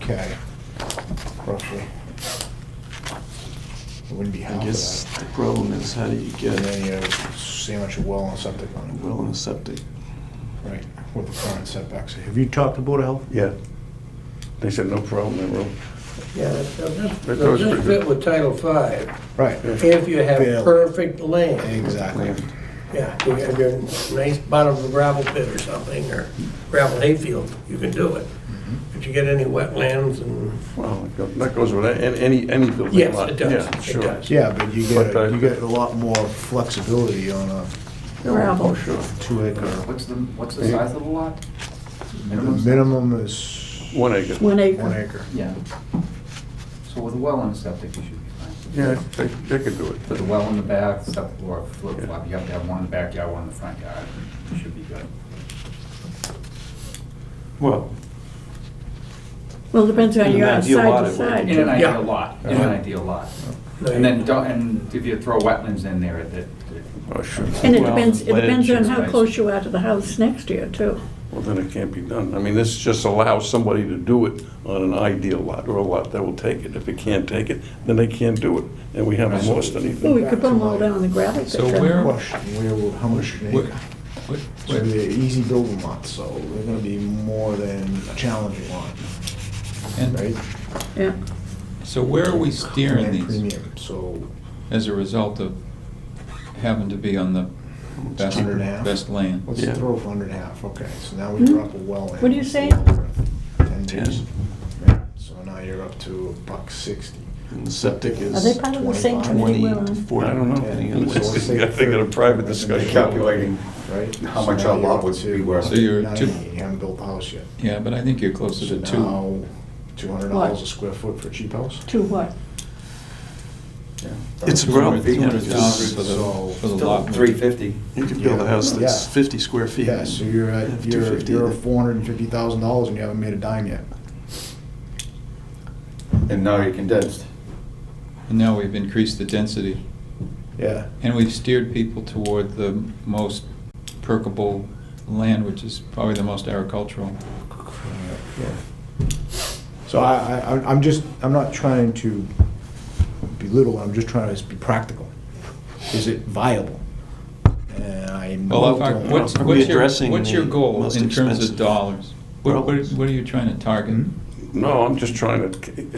K, roughly. It wouldn't be I half of guess that. the problem is how do you And get then a you have so much well and septic on it. well and a septic? Right, with the current setbacks. Have you talked to Board of Health? Yeah. They said no problem, they were, Yeah, they'll just, That they'll was just pretty fit good. with Title V, Right, if you have Yeah. perfect land. exactly. Yeah, you have your nice bottom of a gravel pit or something, or gravel hayfield, you can do it. Mm-hmm. But you get any wetlands and, well, it go- that goes with a- any, any building. yes, lot. it Yeah, does, it sure. does. Yeah, but you get, But, uh, you get a lot more flexibility on a Oh, Gravel. sure. two acre. What's the, what's the size of the lot? The minimum is One acre. One one acre. acre. Yeah. So with a well and a septic, you should be fine. Yeah, they, they could do it. Put the well in the back, septic or flip flop, you have to have one in the backyard, one in the front yard, you should be good. Well, Well, depends on In your an side ideal lot, it to would be. side. In an Yeah. ideal lot, in an ideal lot. And then don't, and if you throw wetlands in there, that, that- oh, sure. And it Well, depends, it but depends on it's how nice. close you are to the house next year, too. Well, then it can't be done. I mean, this just allows somebody to do it on an ideal lot or a lot that will take it. If it can't take it, then they can't do it, and we haven't lost Well, we anything. could put them all down on the gravel pit. So then. where- Question, where, will- how much an Where- acre? where- So where- they're easy building lots, so they're gonna be more than a challenging lot, right? And Yeah, so where are we steering Command these Premium, so as a result of having to be on the best, Hundred and a half? best land? let's Yeah. throw a hundred and a half, okay, so now we Hmm? drop a well in. What do you say? Ten Ten. days. So now you're up to a buck sixty. And the septic Are is they part of the same 25. committee, Will? twenty, forty. I don't know. It's- I think in a private discussion. Calculating right? How So much now our lot you're up would to be worth. So you're 90, two- You haven't built the house yet. Yeah, but I think you're closer So to two. now, two hundred dollars a square foot for a cheap house? To what? It's Two rough. hundred thousand So- for the, for the Still lot. three fifty. You could build a house that's Yeah. fifty square feet. Yeah, so you're at, Have you're, 250 you're then. four hundred and fifty thousand dollars and you haven't made a dime yet. And now you're condensed. And now we've increased the density. Yeah. And we've steered people toward the most perkable land, which is probably the most agricultural. So I, I, I'm- I'm just, I'm not trying to belittle, I'm just trying to be practical. Is it viable? And I Well, if I, don't what's, Are know. we what's your, addressing what's your the goal most in terms expensive of dollars? What, what problems? what are you trying to target? Hmm? No, I'm just trying to, it-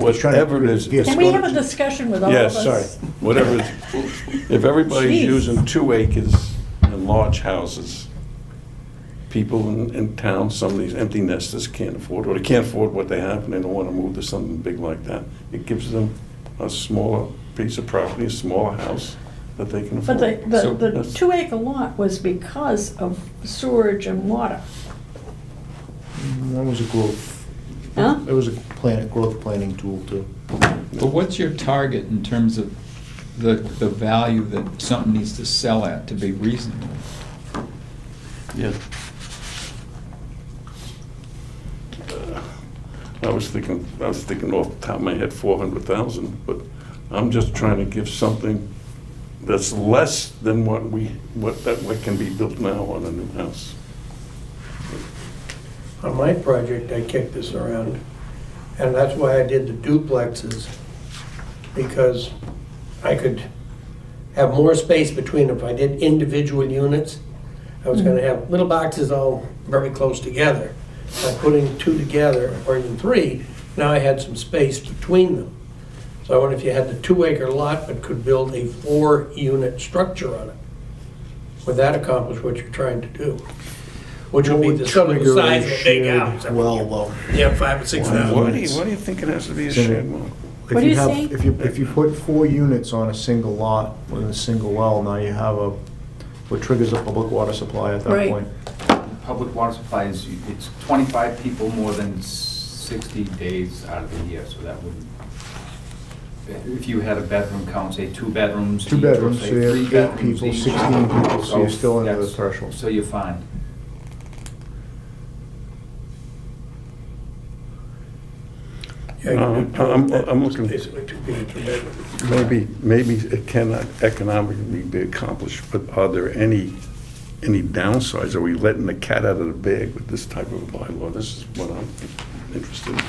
Just trying to whatever it is. create a it's Can we gonna- have a discussion with all Yeah, of us? sorry. Whatever, it- if everybody's Jeez. using two acres and large houses, people in, in town, some of these empty nesters can't afford, or they can't afford what they have, and they don't want to move to something big like that. It gives them a smaller piece of property, a smaller house that they can afford. But the, So- the, the two acre lot was because of sewerage and water. That was a growth, Huh? that was a plan, growth planning tool too. But what's your target in terms of the, the value that something needs to sell at to be reasonable? Yeah. Uh, I was thinking, I was thinking off the top of my head, four hundred thousand, but I'm just trying to give something that's less than what we, what, that, what can be built now on a new house. On my project, I kicked this around, and that's why I did the duplexes, because I could have more space between if I did individual units. I was gonna have little boxes all very close together. By putting two together, or even three, now I had some space between them. So I wonder if you had the two-acre lot but could build a four-unit structure on it. Would that accomplish what you're trying to do? Which would be the sum of the Trigger a size of a big shared house. Well, though. Yeah, five or six Why- thousand. Why do you, why do you think it has to be a shared well? If What do you have- say? If you, if you put four units on a single lot with a single well, now you have a, what triggers a public water supply at that Right. point. public water supply is, it's twenty-five people more than sixty days out of the year, so that would, if you had a bedroom count, say two bedrooms. Two each, or bedrooms, say so you have three eight bedrooms people, each. Oh, 16 people, so you're still under the that's- threshold. So you're fine. Yeah, you can do Um, I'm- two. I'm looking- Basically, two people per bedroom. Maybe, maybe it cannot economically be accomplished, but are there any, any downsides? Are we letting the cat out of the bag with this type of bylaw? This is what I'm interested in.